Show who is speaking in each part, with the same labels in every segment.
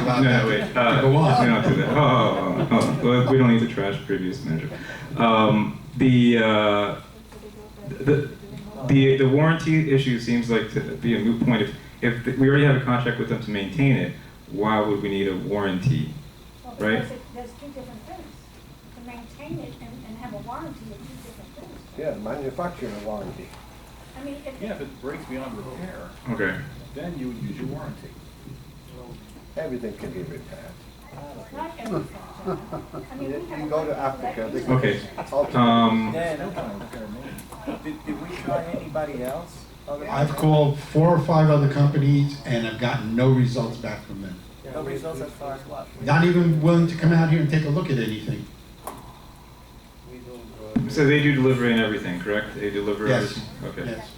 Speaker 1: about
Speaker 2: No,
Speaker 1: that.
Speaker 2: no, wait. Uh,
Speaker 1: Go on.
Speaker 2: We don't do that. Oh, oh, oh. Well, we don't need to trash previous manager. Um, the, uh, the the the warranty issue seems like to be a moot point. If if we already have a contract with them to maintain it, why would we need a warranty?
Speaker 3: Well,
Speaker 2: Right.
Speaker 3: because it- There's two different things. To maintain it and, and have a warranty are two different things.
Speaker 4: Yeah, manufacturing warranty.
Speaker 3: I mean, if.
Speaker 5: Yeah, if it breaks beyond repair,
Speaker 2: Okay.
Speaker 5: then you would use your warranty.
Speaker 4: Everything can be repaired.
Speaker 3: It's not everything, John. I mean,
Speaker 4: You
Speaker 3: we have.
Speaker 4: you go to Africa, they can.
Speaker 2: Okay.
Speaker 4: Okay.
Speaker 2: Um,
Speaker 5: Yeah, no kind of repair, man.
Speaker 6: Did, did we try anybody else? Other-
Speaker 1: I've called four or five other companies and I've gotten no results back from them.
Speaker 6: No results as far as what?
Speaker 1: Not even willing to come out here and take a look at anything.
Speaker 2: so they do delivery and everything, correct? They deliver
Speaker 1: Yes.
Speaker 2: everything. Okay.
Speaker 1: Yes.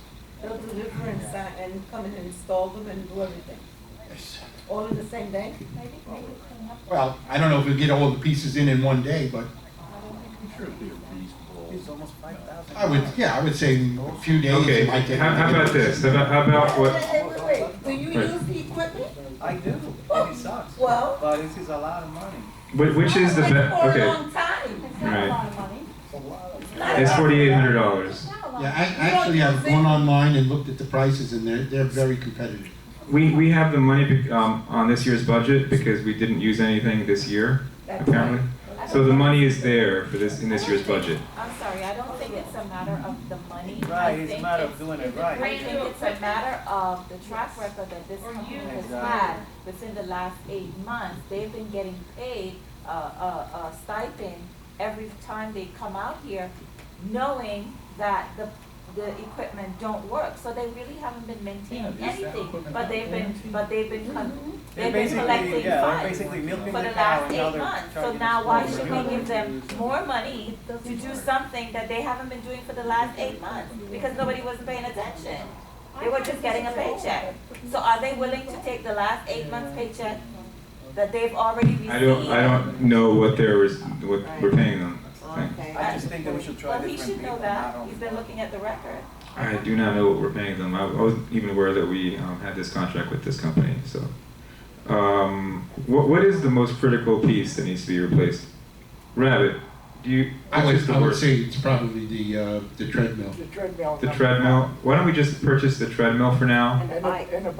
Speaker 7: They'll deliver and sign and come and install them and do everything,
Speaker 1: Yes.
Speaker 7: all in the same day?
Speaker 3: Maybe, maybe clean up.
Speaker 1: Well, I don't know if we get all the pieces in in one day, but
Speaker 5: I'm sure it'd be reasonable.
Speaker 6: It's almost five thousand.
Speaker 1: I would, yeah, I would say a few days.
Speaker 2: Okay.
Speaker 1: it might take-
Speaker 2: How, how about this? How about, how about
Speaker 7: Wait,
Speaker 2: what?
Speaker 7: wait, wait, wait. do you
Speaker 2: Right.
Speaker 7: use the equipment?
Speaker 6: I do, and it sucks,
Speaker 7: Well.
Speaker 6: but this is a lot of money.
Speaker 2: whi- Which is the
Speaker 7: Like,
Speaker 2: best?
Speaker 7: For a
Speaker 2: Okay.
Speaker 7: long time.
Speaker 3: It's not
Speaker 2: Right.
Speaker 3: a lot of money.
Speaker 7: Not
Speaker 2: It's
Speaker 7: a-
Speaker 2: forty-eight hundred dollars.
Speaker 3: It's not a lot.
Speaker 1: Yeah, I actually have gone online and looked at the prices and they're, they're very competitive.
Speaker 2: We, we have the money bec- um, on this year's budget because we didn't use anything this year,
Speaker 7: That's
Speaker 2: apparently.
Speaker 7: right.
Speaker 2: So the money is there for this, in this year's budget.
Speaker 8: I'm sorry, I don't think it's a matter of the money. I
Speaker 6: Right, it's a
Speaker 8: think
Speaker 6: matter of
Speaker 8: it's-
Speaker 6: doing it
Speaker 8: I
Speaker 6: right.
Speaker 8: think it's a matter of the track record that this company has had within the last eight months. They've been getting paid a, a, a stipend every time they come out here, knowing that the, the equipment don't work. So they really haven't been maintaining
Speaker 5: Yeah, is that
Speaker 8: anything,
Speaker 5: equipment
Speaker 8: but they've been,
Speaker 5: guaranteed?
Speaker 8: but they've been, con-
Speaker 6: They're
Speaker 8: they've been
Speaker 6: basically, yeah,
Speaker 8: collecting
Speaker 6: they're
Speaker 8: funds
Speaker 6: basically milking
Speaker 8: for the
Speaker 6: cow
Speaker 8: last
Speaker 6: and now
Speaker 8: eight
Speaker 6: they're
Speaker 8: months. So
Speaker 6: charging
Speaker 8: now
Speaker 6: us
Speaker 8: why
Speaker 6: more
Speaker 8: should
Speaker 6: money.
Speaker 8: we give them more money to do something that they haven't been doing for the last eight months? Because nobody was paying attention. They were just getting a paycheck. So are they willing to take the last eight months paycheck that they've already received?
Speaker 2: I don't, I don't know what there was, what we're paying them. I think.
Speaker 6: I just think that we should try
Speaker 8: Well, he
Speaker 6: different
Speaker 8: should
Speaker 6: people,
Speaker 8: know
Speaker 6: not
Speaker 8: that. He's
Speaker 6: only.
Speaker 8: been looking at the record.
Speaker 2: I do not know what we're paying them. I I wasn't even aware that we um, had this contract with this company, so. Um, What, what is the most critical piece that needs to be replaced? Rabbit, do you,
Speaker 1: I
Speaker 2: which is
Speaker 1: would,
Speaker 2: the
Speaker 1: I would
Speaker 2: worst?
Speaker 1: say it's probably the, uh, the treadmill.
Speaker 9: treadmill.
Speaker 2: The treadmill? Why don't we just purchase the treadmill for now
Speaker 9: And the, and the bikes.
Speaker 3: And a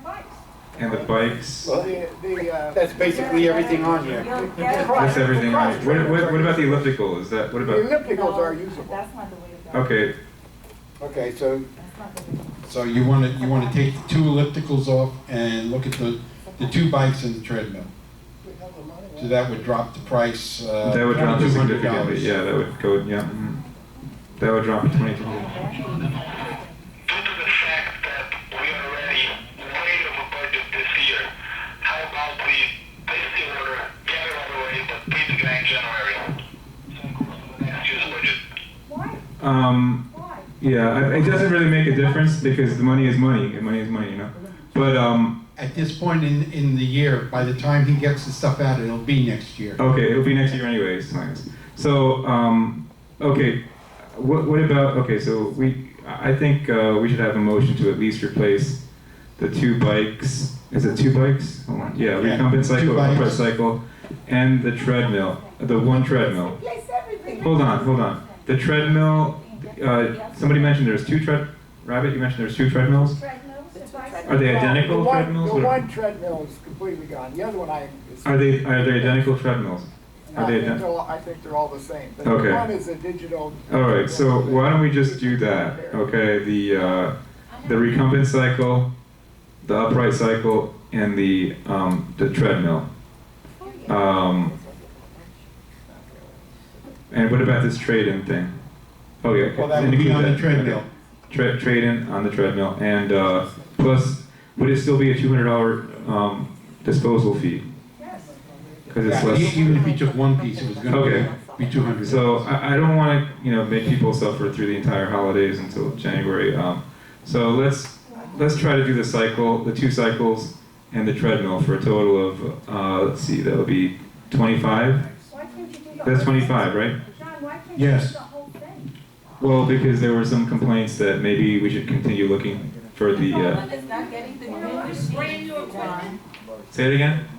Speaker 3: bike.
Speaker 2: and the bikes?
Speaker 9: The, the, uh.
Speaker 10: That's basically everything on here.
Speaker 8: You'll
Speaker 9: the
Speaker 8: get
Speaker 9: cross-
Speaker 2: That's everything.
Speaker 9: the
Speaker 2: on
Speaker 9: cross
Speaker 2: it. What, what, what about the
Speaker 9: trainers
Speaker 2: elliptical? Is that, what
Speaker 9: are-
Speaker 2: about?
Speaker 9: The ellipticals are
Speaker 8: No,
Speaker 9: usable.
Speaker 8: That's not the way to go.
Speaker 2: Okay,
Speaker 10: Okay, so
Speaker 8: That's not the way.
Speaker 1: So you wanna, you wanna take the two ellipticals off and look at the, the two bikes and the treadmill. So that would drop the price, uh.
Speaker 2: that would drop it
Speaker 1: $2,200.
Speaker 2: significantly. Yeah, that would go, yeah. mhm. That would drop to twenty-two.
Speaker 11: due to the fact that we are already way over budget this year, how about we place the order, get it out of the way, but pay the guy in January? So it goes to the next year's budget.
Speaker 3: Why,
Speaker 2: Um,
Speaker 3: why?
Speaker 2: yeah, I- it doesn't really make a difference because the money is money, and money is money, you know? But, um,
Speaker 1: At this point in, in the year, by the time he gets the stuff out, it'll be next year.
Speaker 2: okay, it'll be next year anyways, thanks. So, um, okay, what, what about, okay, so we, I I think, uh, we should have a motion to at least replace the two bikes. Is it two bikes? Hold on. Yeah,
Speaker 1: Yeah,
Speaker 2: recumbent
Speaker 1: two
Speaker 2: cycle, upright
Speaker 1: bikes.
Speaker 2: cycle, and the treadmill, the one treadmill.
Speaker 7: Place everything.
Speaker 2: Hold on, hold on. The treadmill, uh, somebody mentioned there's two tread, Rabbit, you mentioned there's two treadmills?
Speaker 3: Treadmills and bikes.
Speaker 2: Are they
Speaker 9: The
Speaker 2: identical
Speaker 9: one-
Speaker 2: treadmills?
Speaker 9: The
Speaker 2: or-
Speaker 9: one treadmill is completely gone, the other one I. is-
Speaker 2: Are they, are they identical treadmills?
Speaker 9: I
Speaker 2: Are they
Speaker 9: think they're
Speaker 2: identical?
Speaker 9: all, I think they're all the same, but
Speaker 2: Okay.
Speaker 9: the one is a digital.
Speaker 2: All right, so why don't we just do that? Okay, the, uh, the recumbent cycle, the upright cycle, and the, um, the treadmill. Um, and what about this trade-in thing? Oh, yeah.
Speaker 1: Well, that would be
Speaker 2: include
Speaker 1: on the
Speaker 2: that.
Speaker 1: treadmill.
Speaker 2: Tra- trade in on the treadmill, and uh, plus, would it still be a two hundred dollar um, disposal fee?
Speaker 3: Yes.
Speaker 2: Because it's
Speaker 1: Yeah, e-
Speaker 2: less.
Speaker 1: Even if he took one piece, it was
Speaker 2: Okay.
Speaker 1: gonna be two hundred.
Speaker 2: So I, I don't want to you know make people suffer through the entire holidays until January. Um, so let's let's try to do the cycle, the two cycles, and the treadmill for a total of uh, let's see, that would be twenty five.
Speaker 3: Why can't you do the whole?
Speaker 2: That's twenty
Speaker 3: thing?
Speaker 2: five, right?
Speaker 3: John, why can't you do
Speaker 1: Yes.
Speaker 3: the whole thing?
Speaker 2: Well, because there were some complaints that maybe we should continue looking for the. Uh,
Speaker 8: It's not getting the
Speaker 3: You know what?
Speaker 8: new machine, John.
Speaker 2: say it again.